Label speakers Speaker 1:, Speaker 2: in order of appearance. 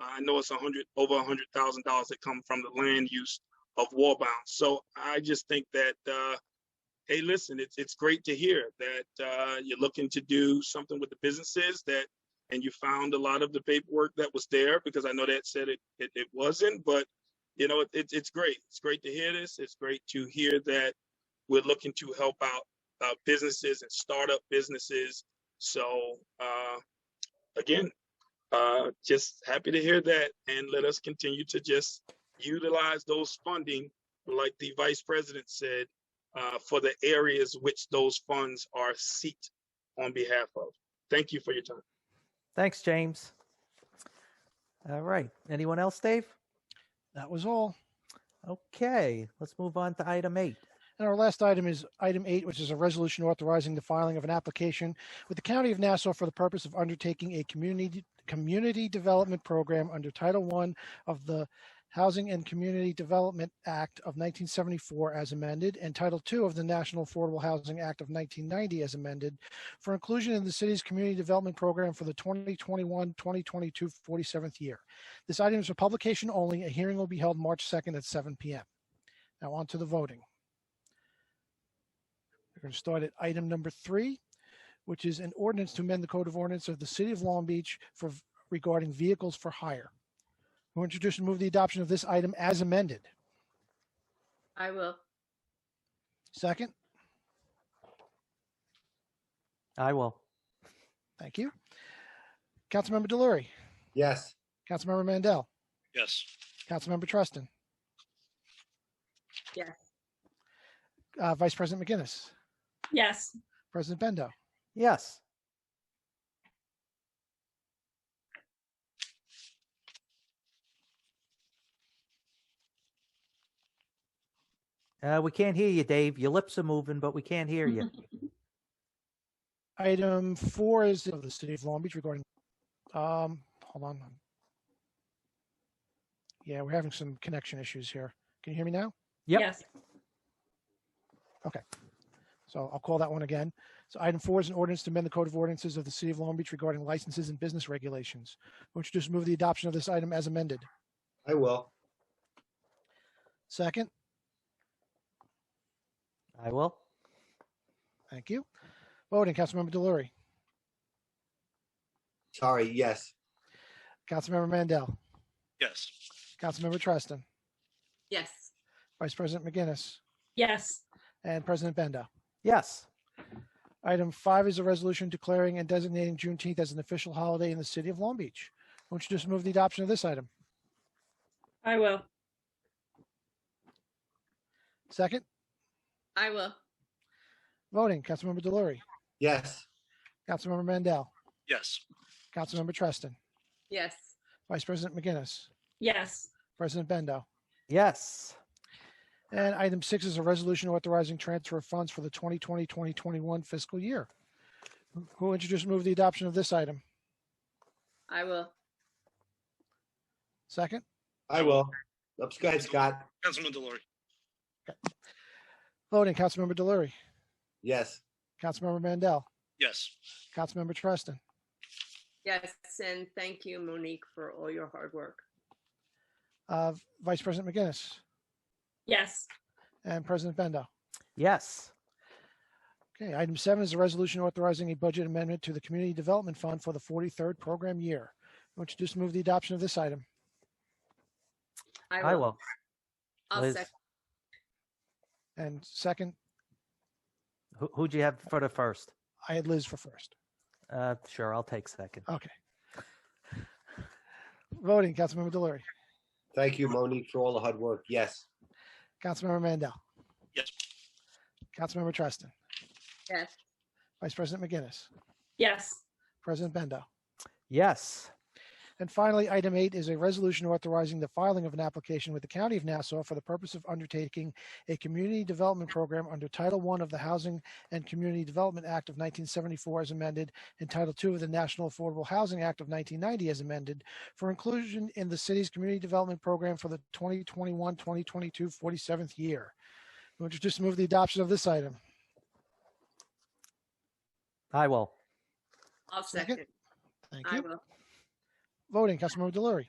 Speaker 1: Uh, I know it's a hundred, over a hundred thousand dollars that come from the land use of Warbound. So I just think that, uh, hey, listen, it's, it's great to hear that, uh, you're looking to do something with the businesses that, and you found a lot of the paperwork that was there because I know that said it, it, it wasn't, but you know, it, it's it's great. It's great to hear this. It's great to hear that we're looking to help out uh, businesses and startup businesses. So uh, again, uh, just happy to hear that, and let us continue to just utilize those funding, like the vice president said, uh, for the areas which those funds are seat on behalf of. Thank you for your time.
Speaker 2: Thanks, James. All right. Anyone else, Dave?
Speaker 3: That was all.
Speaker 2: Okay. Let's move on to item eight.
Speaker 3: And our last item is item eight, which is a resolution authorizing the filing of an application with the County of Nassau for the purpose of undertaking a community community development program under Title I of the Housing and Community Development Act of 1974 as amended and Title II of the National Affordable Housing Act of 1990 as amended for inclusion in the city's community development program for the 2021-2022 47th year. This item is for publication only. A hearing will be held March 2nd at 7 p.m. Now on to the voting. We're going to start at item number three, which is an ordinance to amend the code of ordinance of the city of Long Beach for regarding vehicles for hire. Who introduced and move the adoption of this item as amended?
Speaker 4: I will.
Speaker 3: Second,
Speaker 2: I will.
Speaker 3: thank you. Councilmember Delory,
Speaker 5: Yes.
Speaker 3: Councilmember Mandel,
Speaker 6: yes,
Speaker 3: Councilmember Treston.
Speaker 4: Yes.
Speaker 3: Uh, Vice President McGinnis,
Speaker 7: yes.
Speaker 3: President Bendo,
Speaker 2: Yes. Uh, we can't hear you, Dave. Your lips are moving, but we can't hear you.
Speaker 3: Item four is of the city of Long Beach regarding, um, hold on. Yeah, we're having some connection issues here. Can you hear me now?
Speaker 2: Yep.
Speaker 7: Yes.
Speaker 3: So I'll call that one again. So item four is an ordinance to amend the code of ordinances of the city of Long Beach regarding licenses and business regulations. Would you just move the adoption of this item as amended?
Speaker 5: I will.
Speaker 3: Second,
Speaker 2: I will.
Speaker 3: thank you. Voting, Councilmember Delory,
Speaker 5: Sorry. Yes.
Speaker 3: Councilmember Mandel,
Speaker 6: yes.
Speaker 3: Councilmember Treston,
Speaker 4: Yes.
Speaker 3: Vice President McGinnis,
Speaker 7: Yes.
Speaker 3: and President Bendo.
Speaker 2: Yes.
Speaker 3: Item five is a resolution declaring and designating Juneteenth as an official holiday in the city of Long Beach. Would you just move the adoption of this item?
Speaker 7: I will.
Speaker 3: Second,
Speaker 4: I will.
Speaker 3: voting, Councilmember Delory,
Speaker 5: Yes.
Speaker 3: Councilmember Mandel,
Speaker 6: Yes.
Speaker 3: Councilmember Treston,
Speaker 4: Yes.
Speaker 3: Vice President McGinnis,
Speaker 7: Yes.
Speaker 3: President Bendo.
Speaker 2: Yes.
Speaker 3: And item six is a resolution authorizing transfer of funds for the 2020-2021 fiscal year. Who will introduce and move the adoption of this item?
Speaker 4: I will.
Speaker 3: Second,
Speaker 5: I will. Let's go ahead, Scott.
Speaker 6: Councilman Delory,
Speaker 3: voting, Councilmember Delory,
Speaker 5: Yes.
Speaker 3: Councilmember Mandel,
Speaker 6: yes,
Speaker 3: Councilmember Treston,
Speaker 4: Yes. And thank you, Monique, for all your hard work.
Speaker 3: uh, Vice President McGinnis,
Speaker 7: Yes.
Speaker 3: and President Bendo.
Speaker 2: Yes.
Speaker 3: Okay, item seven is a resolution authorizing a budget amendment to the Community Development Fund for the 43rd program year. Who will introduce and move the adoption of this item?
Speaker 4: I will.
Speaker 2: I will.
Speaker 4: I'll
Speaker 2: Liz,
Speaker 4: second.
Speaker 3: And second,
Speaker 2: Who, who'd you have for the first?
Speaker 3: I had Liz for first.
Speaker 2: Uh, sure, I'll take second.
Speaker 3: Okay. Voting, Councilmember Delory,
Speaker 5: Thank you, Monique, for all the hard work. Yes.
Speaker 3: Councilmember Mandel,
Speaker 6: yes,
Speaker 3: Councilmember Treston,
Speaker 4: Yes.
Speaker 3: Vice President McGinnis,
Speaker 7: Yes.
Speaker 3: President Bendo.
Speaker 2: Yes.
Speaker 3: And finally, item eight is a resolution authorizing the filing of an application with the County of Nassau for the purpose of undertaking a community development program under Title I of the Housing and Community Development Act of 1974 as amended and Title II of the National Affordable Housing Act of 1990 as amended for inclusion in the city's community development program for the 2021-2022 47th year. Who would introduce and move the adoption of this item?
Speaker 2: I will.
Speaker 4: I'll
Speaker 3: Second.
Speaker 4: second.
Speaker 3: Thank
Speaker 4: I
Speaker 3: you.
Speaker 4: will.
Speaker 3: Voting, Councilmember Delory,